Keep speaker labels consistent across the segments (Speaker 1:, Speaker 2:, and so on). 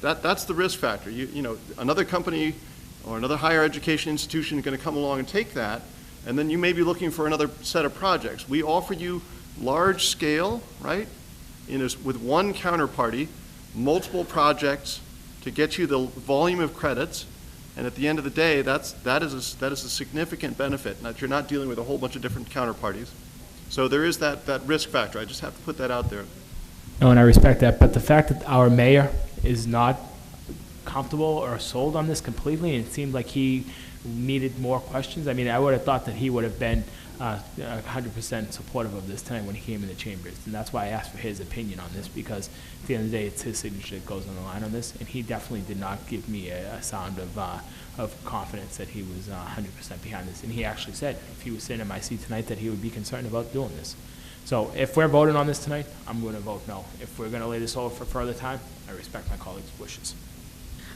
Speaker 1: That, that's the risk factor. You, you know, another company or another higher education institution is going to come along and take that, and then you may be looking for another set of projects. We offer you large scale, right, in this, with one counterparty, multiple projects to get you the volume of credits, and at the end of the day, that's, that is, a s- that is a significant benefit, that you're not dealing with a whole bunch of different counterparties. So there is that, that risk factor. I just have to put that out there.
Speaker 2: No, and I respect that, but the fact that our mayor is not comfortable or sold on this completely, and it seemed like he needed more questions. I mean, I would have thought that he would have been uh, a hundred percent supportive of this tonight when he came in the chambers, and that's why I asked for his opinion on this, because at the end of the day, it's his signature that goes on the line on this, and he definitely did not give me a, a sound of, uh, of confidence that he was uh, a hundred percent behind this, and he actually said, if he was sitting in my seat tonight, that he would be concerned about doing this. So if we're voting on this tonight, I'm going to vote no. If we're going to lay this over for further time, I respect my colleagues' wishes.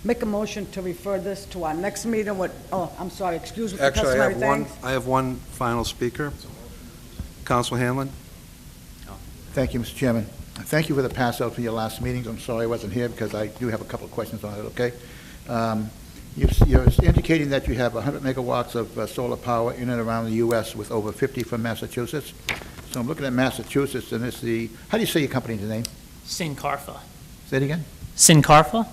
Speaker 3: Make a motion to refer this to our next meeting with, oh, I'm sorry, excuse me for
Speaker 4: Actually, I
Speaker 3: customary
Speaker 4: have one,
Speaker 3: things.
Speaker 4: I have one final speaker. Council Hanlon?
Speaker 5: Thank you, Mr. Chairman. Thank you for the pass out for your last meetings. I'm sorry I wasn't here because I do have a couple of questions on it, okay? Um, you- You're indicating that you have 100 megawatts of uh, solar power in and around the U.S. with over 50 from Massachusetts. So I'm looking at Massachusetts, and it's the, how do you say your company's name?
Speaker 6: Sincarfa.
Speaker 5: Say it again?
Speaker 6: Sincarfa?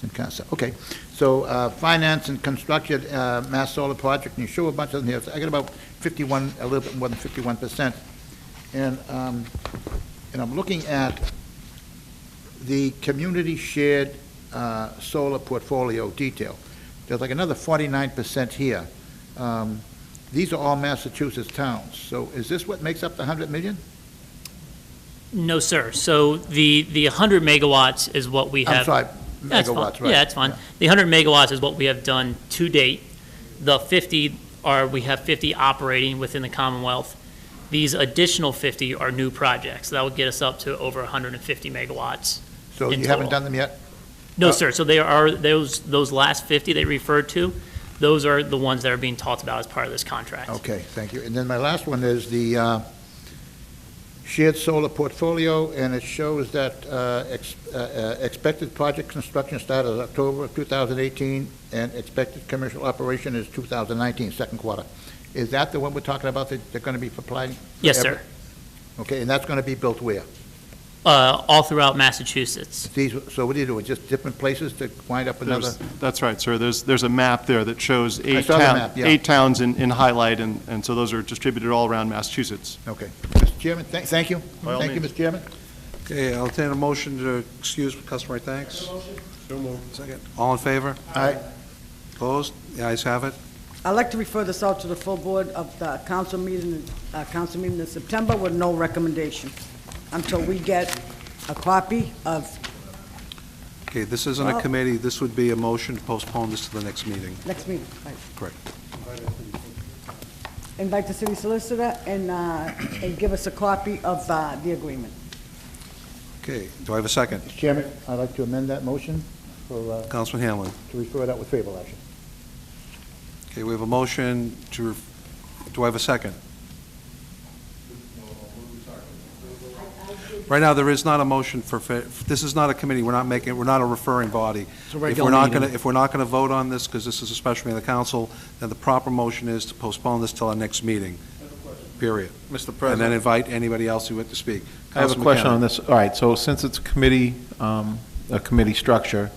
Speaker 5: Sincasa, okay. So uh, finance and construction, uh, Mass Solar Project, and you show a bunch of them here. I got about 51, a little bit more than 51%. And, um, and I'm looking at the community shared uh, solar portfolio detail. There's like another 49% here. Um, These are all Massachusetts towns. So is this what makes up the 100 million?
Speaker 6: No, sir. So the, the 100 megawatts is what we have.
Speaker 5: I'm sorry,
Speaker 6: That's fine.
Speaker 5: megawatts, right?
Speaker 6: Yeah, that's fine. The 100 megawatts is what we have done to date. The 50 are, we have 50 operating within the Commonwealth. These additional 50 are new projects. That would get us up to over 150 megawatts.
Speaker 5: So
Speaker 6: in
Speaker 5: you haven't
Speaker 6: total.
Speaker 5: done them yet?
Speaker 6: No,
Speaker 5: Uh,
Speaker 6: sir. So they are, those, those last 50 they referred to, those are the ones that are being talked about as part of this contract.
Speaker 5: Okay, thank you. And then my last one is the uh, shared solar portfolio, and it shows that uh, ex- uh, uh, expected project construction start is October of 2018, and expected commercial operation is 2019, second quarter. Is that the one we're talking about that they're going to be applying?
Speaker 6: Yes,
Speaker 5: every-
Speaker 6: sir.
Speaker 5: Okay, and that's going to be built where?
Speaker 6: Uh, All throughout Massachusetts.
Speaker 5: These, so what do you do, just different places to wind up another?
Speaker 1: There's- That's right, sir. There's, there's a map there that shows eight
Speaker 5: saw the
Speaker 1: towns,
Speaker 5: map, yeah.
Speaker 1: eight towns in, in highlight, and, and so those are distributed all around Massachusetts.
Speaker 5: Okay. Mr. Chairman, thank thank you.
Speaker 1: By all
Speaker 5: Thank you,
Speaker 1: means.
Speaker 5: Mr. Chairman.
Speaker 4: Okay, I'll entertain a motion to excuse customary thanks. Second. All in favor?
Speaker 5: Aye.
Speaker 4: Opposed? The ayes have it.
Speaker 3: I'd like to refer this out to the full board of the council meeting, uh, council meeting in September with no recommendation until we get a copy of,
Speaker 4: Okay, this isn't a
Speaker 3: Well-
Speaker 4: committee, this would be a motion to postpone this to the next meeting.
Speaker 3: next meeting. Right.
Speaker 4: Correct.
Speaker 3: Invite the city solicitor and, uh, and give us a copy of, uh, the agreement.
Speaker 4: Okay, do I have a second?
Speaker 5: Mr. Chairman, I'd like to amend that motion for, uh,
Speaker 4: Councilman Hanlon.
Speaker 5: to refer it out with favorable action.
Speaker 4: Okay, we have a motion to, ref- do I have a second? Right now, there is not a motion for, fa- this is not a committee, we're not making, we're not a referring body. If we're not going to, if we're not going to vote on this, because this is a special meeting of the council, then the proper motion is to postpone this till our next meeting, period. And
Speaker 7: Mr.
Speaker 4: then
Speaker 7: President,
Speaker 4: invite anybody else who would to speak.
Speaker 7: I have a
Speaker 4: Councilman
Speaker 7: question on
Speaker 4: Cannon.
Speaker 7: this. All right, so since it's committee, um, a committee structure,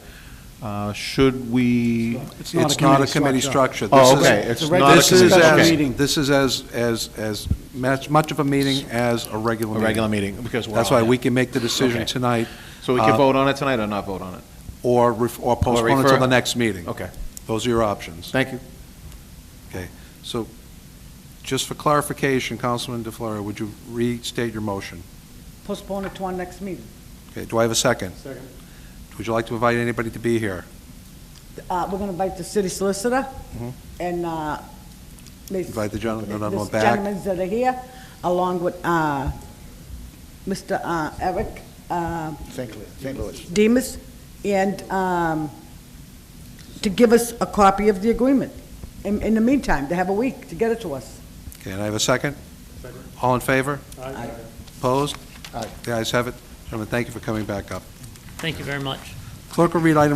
Speaker 7: uh, should we,
Speaker 4: It's not a committee structure.
Speaker 7: Oh,
Speaker 4: This is-
Speaker 7: okay, it's It's a regular- not a
Speaker 4: this is
Speaker 7: committee
Speaker 4: as-
Speaker 7: structure. Okay.
Speaker 4: This is as, as, as much much of a meeting as a regular
Speaker 7: a
Speaker 4: meeting.
Speaker 7: regular meeting? Because we're
Speaker 4: That's
Speaker 7: on
Speaker 4: why
Speaker 7: it.
Speaker 4: we can make the decision
Speaker 7: Okay.
Speaker 4: tonight
Speaker 7: So we can
Speaker 4: uh,
Speaker 7: vote on it tonight or not vote on it?
Speaker 4: or ref- or postpone it
Speaker 7: refer-
Speaker 4: till the next meeting.
Speaker 7: Okay,
Speaker 4: Those are your options.
Speaker 7: thank you.
Speaker 4: So just for clarification, Councilman DeFlorio, would you restate your motion?
Speaker 3: Postpone it to our next meeting.
Speaker 4: Okay, do I have a second? Second. Would you like to invite anybody to be here?
Speaker 3: Uh, we're gonna invite the city solicitor
Speaker 4: Mhm.
Speaker 3: and, uh, Ms.
Speaker 4: Invite the gentleman on the
Speaker 3: This
Speaker 4: back.
Speaker 3: gentlemen that are here, along with uh, Mr. uh, Eric uh,
Speaker 5: St. Louis, St. Louis.
Speaker 3: Demus, and um, to give us a copy of the agreement. In in the meantime, they have a week to get it to us.
Speaker 4: Okay, and I have a second? All in favor? Aye. Opposed?
Speaker 5: Aye.
Speaker 4: The ayes have it. Gentlemen, thank you for coming back up.
Speaker 6: Thank you very much.
Speaker 4: Clerk will read item